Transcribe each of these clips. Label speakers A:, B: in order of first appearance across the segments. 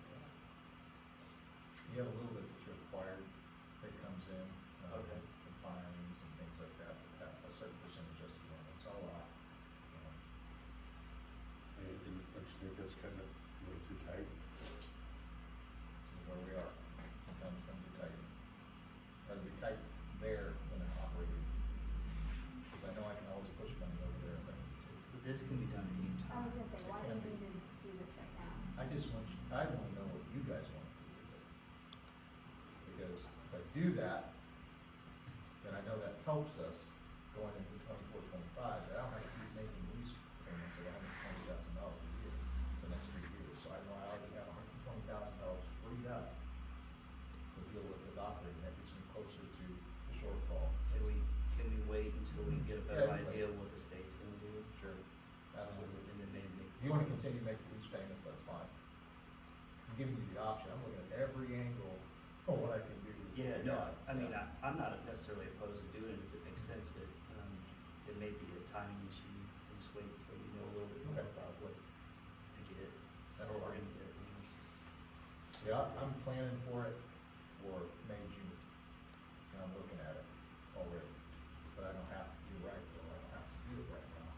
A: uh, I just want, you- I wanna know what you guys want to do with it. Because if I do that, then I know that helps us going into twenty-four, twenty-five, but I don't have to keep making lease payments of hundred and twenty thousand dollars a year for the next three years. So I know I already have hundred and twenty thousand dollars freed up to deal with the operating, that gets me closer to the shortfall.
B: Can we, can we wait until we get a better
A: Yeah, we
B: idea
A: wait.
B: of what the state's gonna do? Um,
A: Sure. Absolutely.
B: And then maybe make.
A: If you wanna continue making lease payments, that's fine. I'm giving you the option, I'm looking at every angle of what I can do.
B: Yeah, no, I mean,
A: Yeah.
B: I, I'm not necessarily opposed to doing it if it makes sense, but, um, it may be a timing issue. We'll Just wait until we know a little bit more
A: Okay.
B: about what to get,
A: That's
B: or we're
A: fine.
B: gonna get.
A: Yeah, I'm planning for it for May, June, and I'm looking at it already, but I don't have to do right, though, I don't have to do it right now.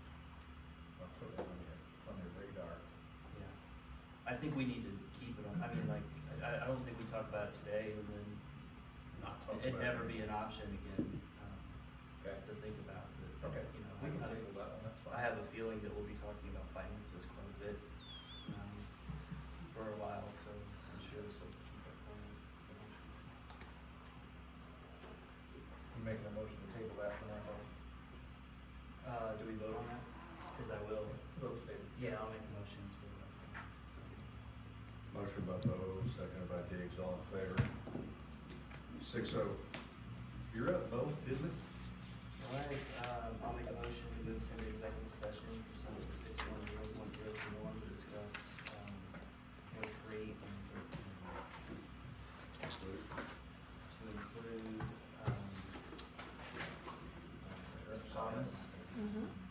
A: I'll put that on your, on your radar.
B: Yeah. I think we need to keep it on, I mean, like, I, I don't think we talk about it today and then
A: Not talk
B: it'd
A: about
B: never
A: it.
B: be an option again, um,
A: Okay,
B: to think about, but,
A: okay,
B: you know.
A: we can
B: I-
A: table that one, that's fine.
B: I have a feeling that we'll be talking about finances quite a bit, um, for a while, so I'm sure this will keep it going.
A: You making a motion to table that for now, or?
B: Uh, do we vote on that? Cause I will,
A: Vote to table.
B: yeah, I'll make a motion to,
C: Motion by Bo, seconded by Diggs, all in favor. Six oh. You're up, Bo, isn't it?
B: alright, um, I'll make a motion to move into executive session pursuant to six one zero one zero two one to discuss, um, point three and thirteen. To include, um, uh, Ms. Thomas. uh,
D: Mm-hmm.